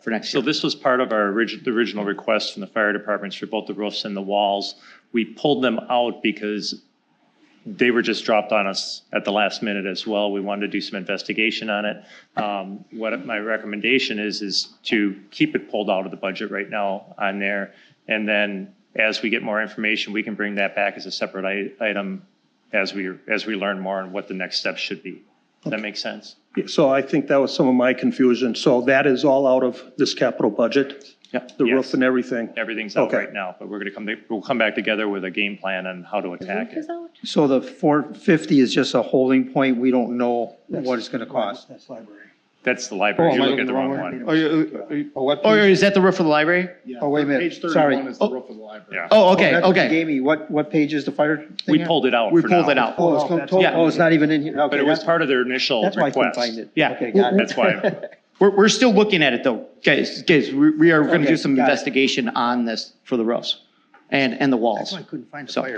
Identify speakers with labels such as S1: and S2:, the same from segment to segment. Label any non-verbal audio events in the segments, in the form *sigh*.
S1: for next
S2: So
S1: year.
S2: this was part of our original, the original request from the fire departments for both the roofs and the walls. We pulled them out because they were just dropped on us at the last minute as well. We wanted to do some investigation on it. Um, What my recommendation is, is to keep it pulled out of the budget right now on there. And then as we get more information, we can bring that back as a separate i- item as we, as we learn more on what the next steps should be. Does that make sense?
S3: So I think that was some of my confusion. So that is all out of this capital budget,
S2: Yeah.
S3: the roof and everything?
S2: Everything's out
S3: Okay.
S2: right now, but we're gonna come, we'll come back together with a game plan on how to attack it.
S4: So the four fifty is just a holding point, we don't know what it's gonna cost.
S3: That's library.
S2: That's the
S5: Oh,
S2: library,
S5: am
S2: you're
S5: I
S2: looking at the
S5: looking
S2: wrong one.
S5: at Oh, yeah, uh, uh, what?
S4: Oh, is that the roof of the library? Oh, wait a minute,
S5: Page
S4: sorry.
S5: thirty-one is the
S4: Oh,
S5: roof of the library.
S2: Yeah,
S4: oh, okay, that's what you
S5: okay.
S4: Gave me, what, what page is the fire thing
S2: we
S4: at?
S2: pulled it out
S4: We
S2: for
S4: pulled
S2: now,
S4: it out.
S5: Oh, it's come total.
S4: Oh, it's not even in here,
S2: But
S4: okay,
S2: it was
S4: that's,
S2: part of their initial
S4: that's why I couldn't
S2: request.
S4: find it.
S1: Yeah.
S4: Okay, got it.
S2: That's
S4: *laughs*
S2: why,
S4: We're, we're still looking at it though, guys, guys, we, we are gonna do Okay, some got it. investigation on this for the roofs and, and the That's walls. why I couldn't find the So- fire.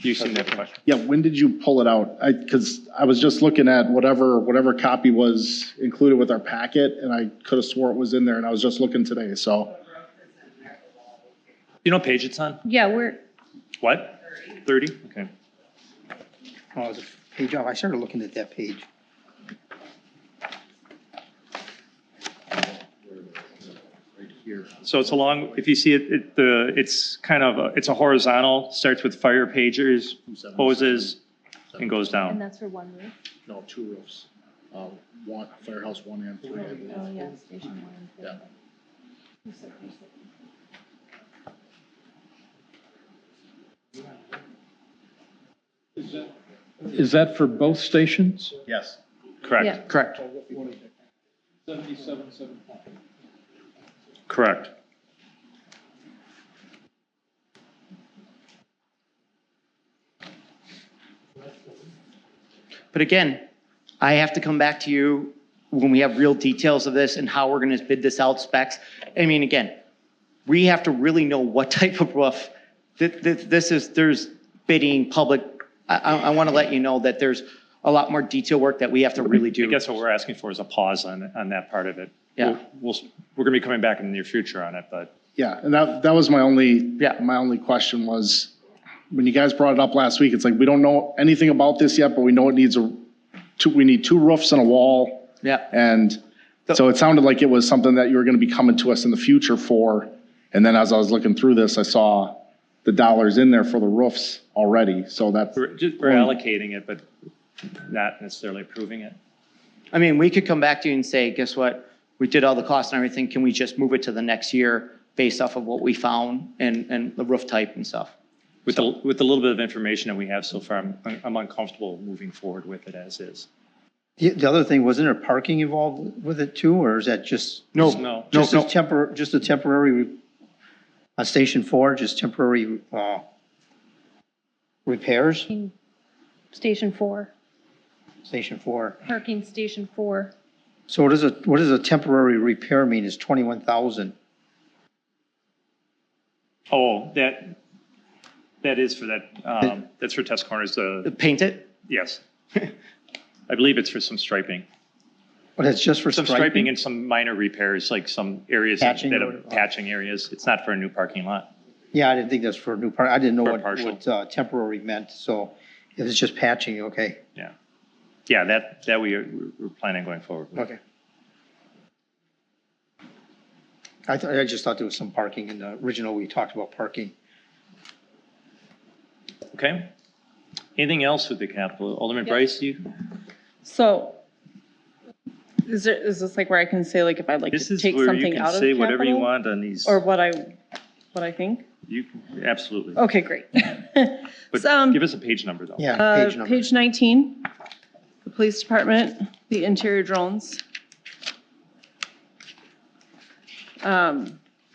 S2: you seem to have a question.
S5: Yeah, when did you pull it out? I, because I was just looking at whatever, whatever copy was included with our packet, and I could have swore it was in there, and I was just looking today, so.
S2: You know what page it's on?
S6: Yeah, we're,
S2: What? Thirty? Okay.
S4: Oh, it was a page off, I started looking at that page.
S2: So it's along, if you see it, it, the, it's kind of, a- it's a horizontal, starts with fire pagers, hoses, and goes
S6: and
S2: down.
S6: that's for one roof.
S5: No, two roofs. Uh, One, firehouse one and three, I
S6: Oh,
S5: believe.
S6: yeah, station one.
S5: Yeah.
S7: Is that for both stations?
S5: Yes.
S6: Yeah.
S2: Correct,
S4: Correct.
S2: correct.
S4: But again, I have to come back to you when we have real details of this and how we're gonna bid this out specs. I mean, again, we have to really know what *laughs* type of roof, th- th- this is, there's bidding, public, I, I, I wanna let you know that there's a lot more detail work that we have to really
S2: I
S4: do.
S2: guess what we're asking for is a pause on, on that part of it.
S4: Yeah.
S2: We'll, we're gonna be coming back in the near future on it, but
S5: Yeah, and that, that was my only,
S4: Yeah.
S5: my only question was, when you guys brought it up last week, it's like, we don't know anything about this yet, but we know it needs a, two, we need two roofs and a wall.
S4: Yeah,
S5: And so it sounded like it was something that you were going to be coming to us in the future for. And then as I was looking through this, I saw the dollars in there for the roofs already. So that's,
S2: we're, just- we're allocating it, but not necessarily approving it.
S4: I mean, we could come back to you and say, guess what? We did all the costs and everything, can we just move it to the next year based off of what we found and, and the roof type and stuff?
S2: With the, with the little bit of information that we have so far, I'm, I'm uncomfortable moving forward with it as is.
S4: The, the other thing, wasn't there parking involved with it too, or is that just?
S2: No. No.
S4: Just
S2: No,
S4: a
S2: no.
S4: tempor, just a temporary, on Station Four, just temporary, uh, repairs,
S6: Parking Station four,
S4: Station Four.
S6: parking station four.
S4: So what is a, what does a temporary repair mean? Is twenty-one thousand?
S2: Oh, that, that is for that, um, that's for test corners, uh,
S4: Paint it?
S2: yes. *laughs* I believe it's for some striping,
S4: But it's just for
S2: some
S4: striping?
S2: striping and some minor repairs, like some areas
S4: Patching
S2: that
S4: or-
S2: are patching areas. It's not for a new parking lot.
S4: Yeah, I didn't think that's for a new part, I didn't know
S2: For
S4: what,
S2: partial.
S4: what, uh, temporary meant, so if it's just patching, okay,
S2: Yeah. Yeah, that, that we are, we're planning going forward. with.
S4: okay. I thought, I just thought there was some parking in the original, we talked about parking.
S2: Okay? Anything else with the capital? Alderman Bryce, you?
S8: So is there, is this like where I can say like if I'd like
S2: This
S8: to
S2: is
S8: take
S2: where you
S8: something
S2: can
S8: out of
S2: say whatever you
S8: capital?
S2: want on these.
S8: Or what I, what I think?
S2: You, absolutely.
S8: Okay, great. *laughs*
S2: But
S8: Um,
S2: give us a page number though.
S4: Yeah,
S8: Uh,
S4: page number.
S8: Page 19, the police department, the interior drones. Um,
S2: Do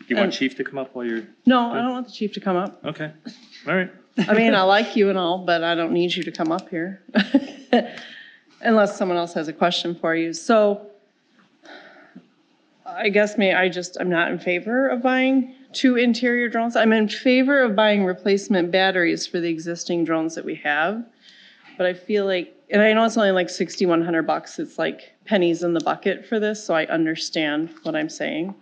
S2: you want
S8: and-
S2: Chief to come up while you're,
S8: No, I don't want the chief to come up.
S2: okay, all right.
S8: I mean, I like you and all, but I don't need you to come up here. *laughs* Unless someone else has a question for you. So I guess may, I just, I'm not in favor of buying two interior drones. I'm in favor of buying replacement batteries for the existing drones that we have. But I feel like, and I know it's only like sixty-one hundred bucks, it's like pennies in the bucket for this, so I understand what I'm saying.